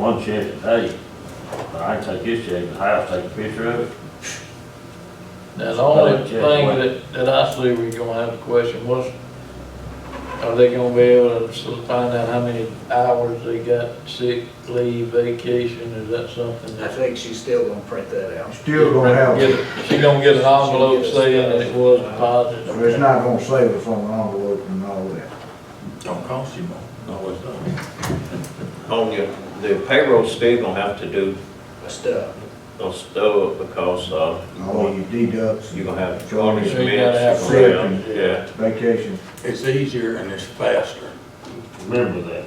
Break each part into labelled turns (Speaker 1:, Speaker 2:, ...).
Speaker 1: One check a day, but I can take this check to the house, take a picture of it.
Speaker 2: Now, the only
Speaker 1: Well, yeah,
Speaker 2: thing
Speaker 1: well-
Speaker 2: that, that I see we're gonna have a question was, are they gonna be able to sort of find out how many hours they got sick, leave, vacation, is that something
Speaker 3: I
Speaker 2: that?
Speaker 3: think she's still gonna print that out.
Speaker 4: Still gonna have,
Speaker 2: Get
Speaker 4: it.
Speaker 2: a- She gonna get an envelope saying that it was
Speaker 4: so it's
Speaker 2: deposited?
Speaker 4: not gonna save us on an envelope and all that.
Speaker 5: Don't cost you more. No, it's not.
Speaker 6: on your, Oh, the payroll's still gonna have to do
Speaker 3: Stuff.
Speaker 6: a stub because, uh,
Speaker 4: All your deducts,
Speaker 6: you're
Speaker 4: your
Speaker 6: gonna have
Speaker 4: Charges.
Speaker 6: garnish
Speaker 2: You gotta
Speaker 6: minutes.
Speaker 2: have
Speaker 6: you're gonna have- Yeah,
Speaker 4: vacations,
Speaker 5: It's easier and it's faster.
Speaker 1: Remember that.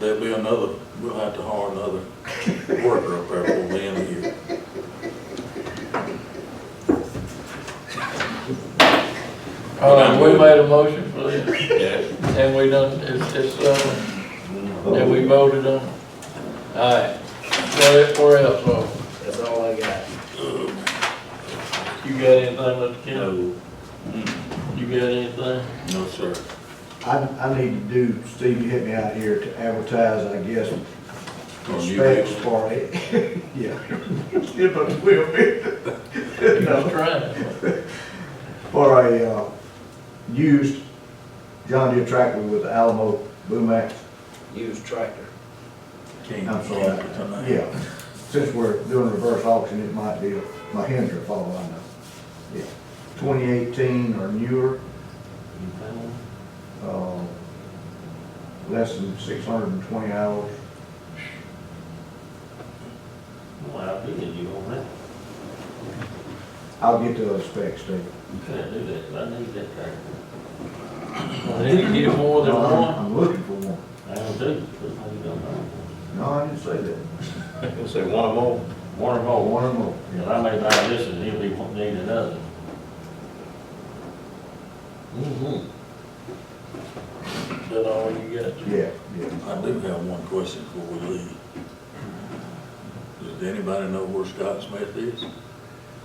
Speaker 5: There'll be another, we'll have to hire another worker up there before the end of the year.
Speaker 2: All right, we made a motion for this,
Speaker 6: yeah.
Speaker 2: and we done, it's, it's, uh, and we voted on it. All right, where, where else, so,
Speaker 3: That's all I got.
Speaker 2: you got anything, Mr. Kent?
Speaker 6: No,
Speaker 2: You got anything?
Speaker 5: No, sir.
Speaker 4: I, I need to do, Steve, you hit me out here to advertise, I guess,
Speaker 5: Or you
Speaker 4: specs
Speaker 5: will.
Speaker 4: for it, yeah. If I will be.
Speaker 2: You was trying.
Speaker 4: For a, uh, used John Deere tractor with the Alamo boom ax.
Speaker 3: Used tractor.
Speaker 5: Can't,
Speaker 4: I'm
Speaker 5: can't
Speaker 4: sorry,
Speaker 5: for tonight.
Speaker 4: yeah. Since we're doing reverse auction, it might be my hands are all I know. Yeah, twenty eighteen or newer. Uh, Less than six hundred and twenty hours.
Speaker 1: Well, I'll be in you on that.
Speaker 4: I'll get to those specs, Steve.
Speaker 1: You can't do that, but I need that tractor.
Speaker 2: I need to get more than
Speaker 4: No, I'm-
Speaker 2: one.
Speaker 4: I'm looking for Oh, one.
Speaker 1: I don't do, it, but I don't know.
Speaker 4: No, I didn't say that.
Speaker 6: you say one or more,
Speaker 1: One or
Speaker 4: Oh,
Speaker 1: more,
Speaker 4: one or more.
Speaker 1: you know, I may buy this and he'll be wanting to need another. Mm-hmm.
Speaker 2: That all you got?
Speaker 4: Yeah, yeah.
Speaker 5: I do have one question before we leave. Does anybody know where Scott Smith is?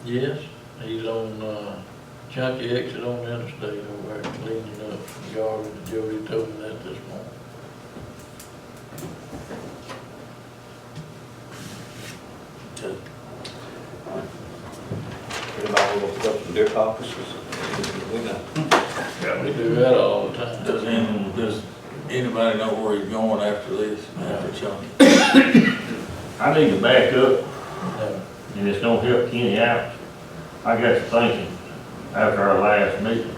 Speaker 2: Yes, he's on, uh, Chunky exit on the interstate over there, cleaning up the yard with Jody told me that this morning.
Speaker 5: Okay.
Speaker 6: anybody want to up some dip offices? We know.
Speaker 2: We do that all the time.
Speaker 5: Does any, does anybody know where he's going after this, after Chunky?
Speaker 1: I need to back up
Speaker 2: No.
Speaker 1: and it's gonna help Kenny out. I got to thinking after our last meeting.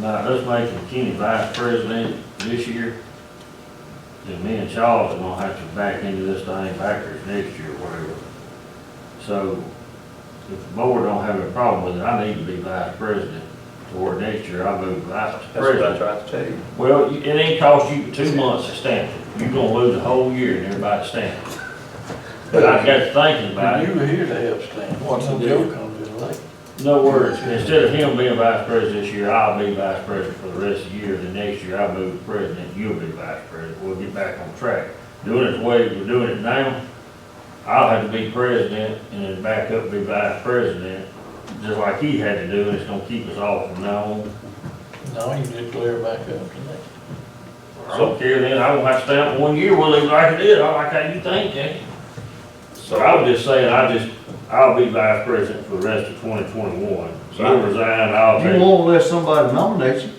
Speaker 1: Now, us making Kenny vice president this year, then me and Charles are gonna have to back into this thing backwards next year, or whatever. So, if the board don't have a problem with it, I need to be vice president toward next year, I'll move vice
Speaker 6: That's what I
Speaker 1: president.
Speaker 6: tried to tell you.
Speaker 1: Well, you- it ain't cost you two months to stamp it, you're gonna lose a whole year and everybody stamping. But I got to thinking about
Speaker 2: But
Speaker 1: it,
Speaker 2: you were here to help Stan.
Speaker 5: What's the
Speaker 2: Joe
Speaker 5: deal?
Speaker 2: comes in late.
Speaker 1: no words, instead of him being vice president this year, I'll be vice president for the rest of the year, the next year I'll move to president, you'll be vice president, we'll get back on track. Doing it the way we're doing it now, I'll have to be president and then back up be vice president, just like he had to do, and it's gonna keep us all from now on.
Speaker 2: No, you just clear back up to
Speaker 1: I don't care then, I won't have to stamp one year, we'll leave it like it is, I like how you think, Jackie. So I was just saying, I just, I'll be vice president for the rest of twenty twenty-one, so I resign, I'll
Speaker 4: You
Speaker 1: take.
Speaker 4: won't let somebody nominate you.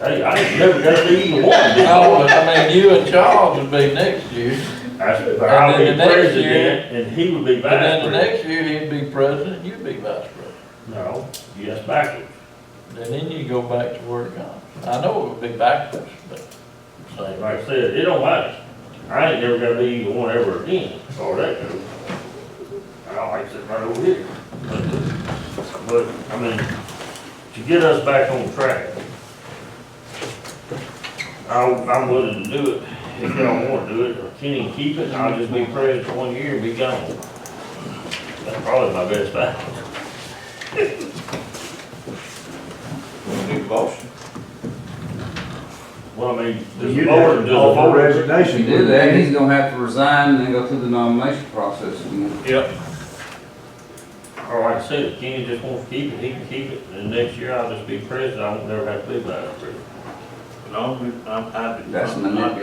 Speaker 1: Hey, I ain't never got to even one.
Speaker 2: that. No, but Oh, I mean, you and Charles would be next year,
Speaker 1: I said, but I'll
Speaker 2: And
Speaker 1: be
Speaker 2: then the next year-
Speaker 1: president, and he would be
Speaker 2: and then
Speaker 1: vice
Speaker 2: the
Speaker 1: president.
Speaker 2: next year he'd be president, you'd be vice president.
Speaker 1: No, yes, backwards.
Speaker 2: And then you go back to where it comes. I know it would be backwards, but
Speaker 1: Like
Speaker 2: same.
Speaker 1: I said, it don't matter, I ain't never got to be even one ever again, as far as that goes. I don't like sitting right over here. uh, But, I mean, to get us back on track, I, I'm willing to do it, if y'all wanna do it, or Kenny can keep it, I'll just be president one year and be gone. That's probably my best bet.
Speaker 6: Want to do motion?
Speaker 1: Well, I mean, does the
Speaker 4: You'd
Speaker 1: board,
Speaker 4: have
Speaker 1: does
Speaker 4: to
Speaker 1: the
Speaker 4: offer
Speaker 1: board?
Speaker 7: If
Speaker 4: resignation.
Speaker 7: you do that, he's gonna have to resign and then go through the nomination process again.
Speaker 1: Yep. Or like I said, if Kenny just wants to keep it, he can keep it, and next year I'll just be president, I won't never have to be vice president. No, I, I do.
Speaker 7: That's
Speaker 1: not-
Speaker 7: not-